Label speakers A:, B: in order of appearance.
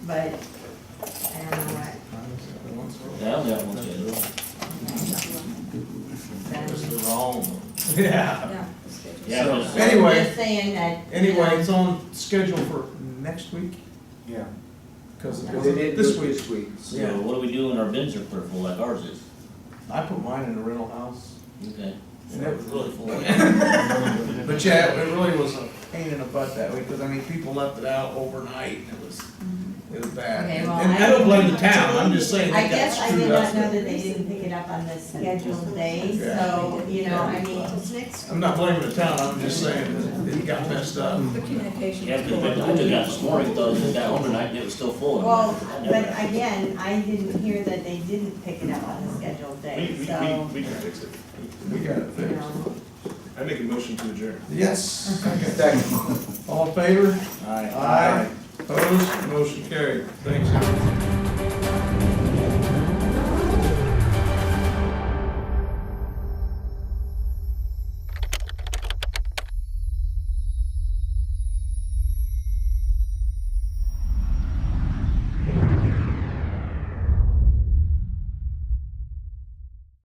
A: but I don't know what.
B: Now that one's in, it's the wrong one.
C: Yeah,
A: Yeah.
B: Yeah,
C: So-
B: it's-
C: Anyway,
A: Just saying that. you
C: anyway,
A: know,
C: it's on schedule for next week,
D: Yeah.
C: because it
A: They
C: was
D: They did
C: this week.
D: This week.
C: Yeah.
B: so what do we do when our bins are put full like ours is?
C: I put mine in a rental house,
B: Okay.
C: and it was really full.
D: But
C: But yeah, it really was a pain in the butt that week, because I mean, people left it out overnight, and it was, it was bad.
A: Okay,
C: And
A: well,
C: and
A: I-
C: I don't blame the town, I'm just saying
A: I
C: that
A: guess
C: got
A: I did
C: screwed
A: not know
C: up.
A: that they didn't pick it up on the scheduled day,
C: Yeah.
A: so, you know, I mean.
C: I'm not blaming the town, I'm just saying that it got messed up.
E: The communication.
B: Yeah, 'cause I took it out this morning, thought it got home tonight, and it was still full.
A: Well, but again, I didn't hear that they didn't pick it up on the scheduled
F: We,
A: day,
F: we,
A: so,
F: we, we can fix it.
A: Mm-hmm.
C: We got it
A: you
C: fixed.
A: know.
F: I make a motion to adjourn.
C: Yes,
D: Second.
C: all in favor?
D: Aye.
C: Opposed, motion carried, thanks.